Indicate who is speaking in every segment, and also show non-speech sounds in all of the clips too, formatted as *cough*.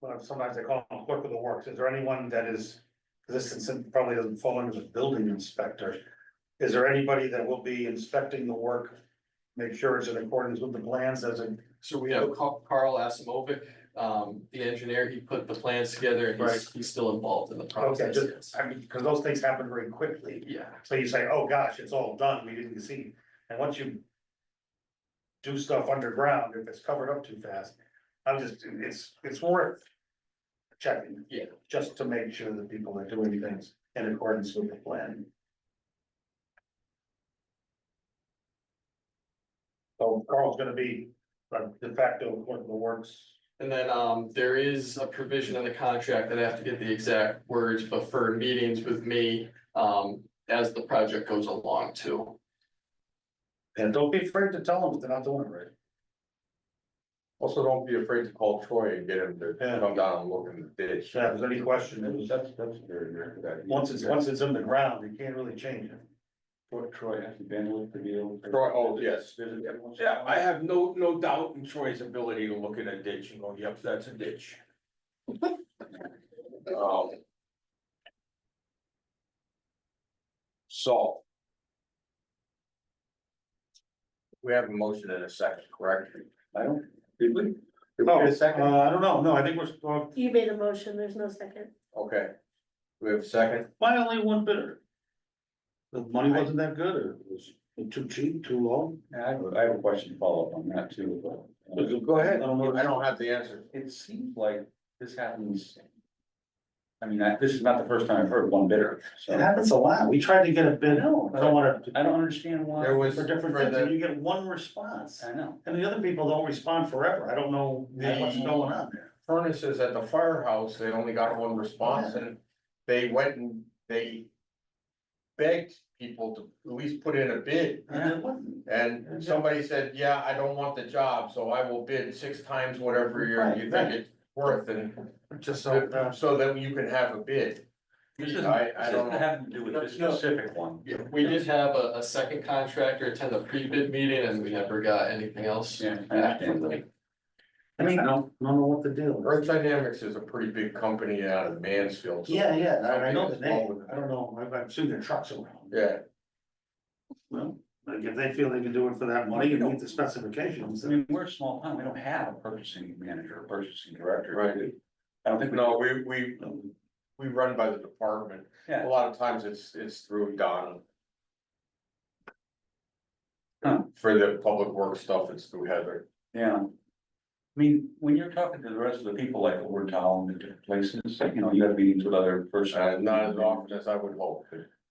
Speaker 1: well, sometimes they call them clerk of the works, is there anyone that is, this is- probably doesn't fall under the building inspector. Is there anybody that will be inspecting the work, make sure it's in accordance with the plans as a,
Speaker 2: So we have Ca- Carl Asimovic, um, the engineer, he put the plans together and he's, he's still involved in the process.
Speaker 1: just-
Speaker 2: yes.
Speaker 1: I mean, because those things happen very quickly.
Speaker 2: Yeah,
Speaker 1: So you say, oh gosh, it's all done, we didn't see, and once you. Do stuff underground, if it's covered up too fast, I'm just, it's, it's worth. Checking.
Speaker 2: Yeah.
Speaker 1: Just to make sure that people are doing things in accordance with the plan. So Carl's gonna be uh, de facto one of the works,
Speaker 2: and then, um, there is a provision in the contract that I have to get the exact words, but for meetings with me, um, as the project goes along too.
Speaker 1: and don't be afraid to tell them that they're not doing it right.
Speaker 3: Also, don't be afraid to call Troy and get him to
Speaker 1: Yeah.
Speaker 3: come down and look in the ditch.
Speaker 1: If there's any question, it
Speaker 3: That's,
Speaker 1: was,
Speaker 3: that's very, very good.
Speaker 1: once it's, once it's in the ground, you can't really change it.
Speaker 4: Troy- Troy has the bandwidth to be able. to-
Speaker 3: Troy, oh, yes.
Speaker 5: Yeah, I have no, no doubt in Troy's ability to look at a ditch and go, yep, that's a ditch.
Speaker 3: Um, So. We have a motion in a second, correct?
Speaker 4: I don't, did we?
Speaker 3: Did we
Speaker 1: Oh,
Speaker 3: get a second?
Speaker 1: Uh, I don't know, no, I think we're, well,
Speaker 6: You made a motion, there's no second.
Speaker 3: Okay. We have a second?
Speaker 1: why only one bidder? The money wasn't that good, or it was too cheap, too low?
Speaker 4: I have, a- I have a question to follow up on that too, but. uh,
Speaker 3: Go ahead.
Speaker 1: I don't know.
Speaker 3: I don't have the answer.
Speaker 4: It seems like this happens. I mean, I- this is not the first time I've heard one bidder, so.
Speaker 1: It happens a lot, we tried to get a bid, I
Speaker 4: No,
Speaker 1: don't wanna,
Speaker 4: I don't understand why.
Speaker 3: There was
Speaker 1: for different
Speaker 3: for
Speaker 1: things,
Speaker 3: the-
Speaker 1: and you get one response,
Speaker 4: I know.
Speaker 1: and the other people don't respond forever, I don't know what's
Speaker 3: The-
Speaker 1: going on there.
Speaker 3: furnaces at the firehouse, they only got one response and they went and they. Begged people to at least put in a bid
Speaker 1: And it wasn't.
Speaker 3: and somebody said, yeah, I don't want the job, so I will bid six times whatever you're, you think it's worth and.
Speaker 1: Just so, uh,
Speaker 3: So that you can have a bid.
Speaker 4: This doesn't,
Speaker 3: I, I
Speaker 4: this
Speaker 3: don't
Speaker 4: doesn't
Speaker 3: know.
Speaker 4: have to do with this
Speaker 2: No, no.
Speaker 4: specific one.
Speaker 2: Yeah, we did have a, a second contractor attend the pre-bid meeting and we never got anything else.
Speaker 4: Yeah, I
Speaker 2: back
Speaker 4: understand
Speaker 2: from them.
Speaker 4: that.
Speaker 1: I mean, I don't, I don't know what the deal is.
Speaker 3: Earth Dynamics is a pretty big company out of Mansfield. so-
Speaker 1: Yeah, yeah, I I know the
Speaker 3: Something is wrong
Speaker 1: name,
Speaker 3: with it.
Speaker 1: I don't know, I've, I've seen their trucks around.
Speaker 3: Yeah,
Speaker 1: Well, like, if they feel they can do it for that money and meet the specifications,
Speaker 4: I mean, we're a small town, we don't have a purchasing manager, a purchasing director.
Speaker 3: Right.
Speaker 4: I don't think. we-
Speaker 3: no, we, we, we run by the department.
Speaker 4: Yeah.
Speaker 3: A lot of times it's, it's through Don.
Speaker 4: Huh.
Speaker 3: For the public work stuff, it's through Heather.
Speaker 4: Yeah. I mean, when you're talking to the rest of the people like over in town and different places, like, you know, you have meetings with other
Speaker 3: Uh,
Speaker 4: persons.
Speaker 3: not as often as I would hope.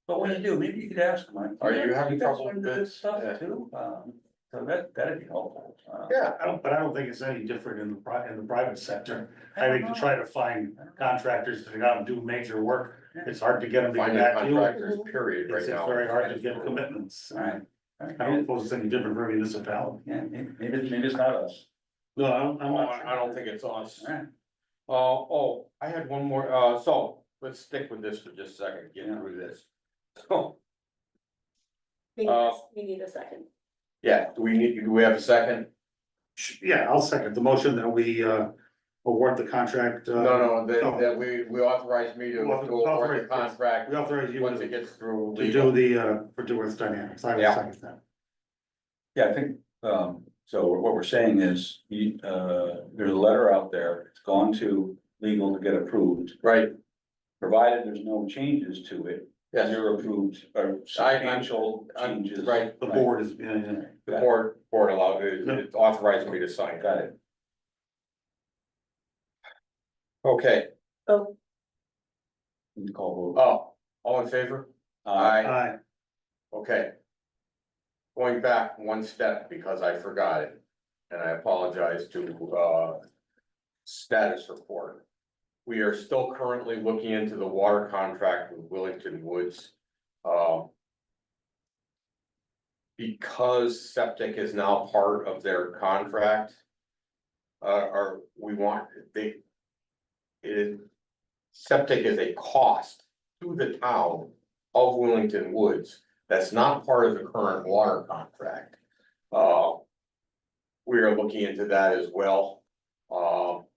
Speaker 4: But when you do, maybe you could ask them like.
Speaker 3: Are you
Speaker 4: "Yeah,
Speaker 3: having
Speaker 4: guys
Speaker 3: trouble
Speaker 4: run into
Speaker 3: with
Speaker 4: this
Speaker 3: Yeah.
Speaker 4: Stuff too, um, so that, that'd be helpful. Uh,
Speaker 3: Yeah.
Speaker 1: I don't, but I don't think it's any different in the pri- in the private sector. I think to try to find contractors to go out and do major work, it's hard to get them to get
Speaker 3: Finding
Speaker 1: back to you.
Speaker 3: contractors, period,
Speaker 1: It's
Speaker 3: right
Speaker 1: it's
Speaker 3: now.
Speaker 1: very hard to get commitments. I
Speaker 4: Alright.
Speaker 1: don't
Speaker 4: Alright,
Speaker 1: suppose it's any different for a municipality.
Speaker 4: yeah, maybe, maybe maybe it's not us.
Speaker 1: No, I don't, I'm
Speaker 3: Oh,
Speaker 1: not.
Speaker 3: I I don't think it's us. *laughs*
Speaker 4: Alright,
Speaker 3: Uh, oh, I had one more, uh, so, let's stick with this for just a second, get through this. So,
Speaker 6: We need
Speaker 3: Uh,
Speaker 6: a- we need a second.
Speaker 3: yeah, do we need, do we have a second?
Speaker 1: Sh- Yeah, I'll second the motion that we uh award the contract. uh,
Speaker 3: No, no,
Speaker 1: no.
Speaker 3: that, that we, we authorize me to to
Speaker 1: Well,
Speaker 3: award
Speaker 1: authorize, yes.
Speaker 3: the contract
Speaker 1: We authorize you
Speaker 3: once it
Speaker 1: to
Speaker 3: gets through
Speaker 1: to do
Speaker 3: legal.
Speaker 1: the uh for Duworth Dynamics. I will
Speaker 3: Yeah.
Speaker 1: second that.
Speaker 4: yeah, I think, um, so what we're saying is, you, uh, there's a letter out there, it's gone to legal to get approved.
Speaker 3: Right,
Speaker 4: Provided there's no changes to it,
Speaker 3: yes,
Speaker 4: you're approved, or substantial
Speaker 3: I'm-
Speaker 4: changes.
Speaker 3: right,
Speaker 1: The board is, yeah, yeah.
Speaker 3: the board, board allowed, it it authorized me to sign.
Speaker 4: Got it.
Speaker 3: Okay,
Speaker 6: Oh,
Speaker 4: You can call vote.
Speaker 3: oh, all in favor? Aye.
Speaker 1: Aye.
Speaker 3: Okay. Going back one step because I forgot it, and I apologize to, uh. Status report. We are still currently looking into the water contract with Willington Woods, uh. Because septic is now part of their contract. Uh, or we want, they. It is, septic is a cost to the town of Willington Woods. That's not part of the current water contract. Uh, We are looking into that as well. Um,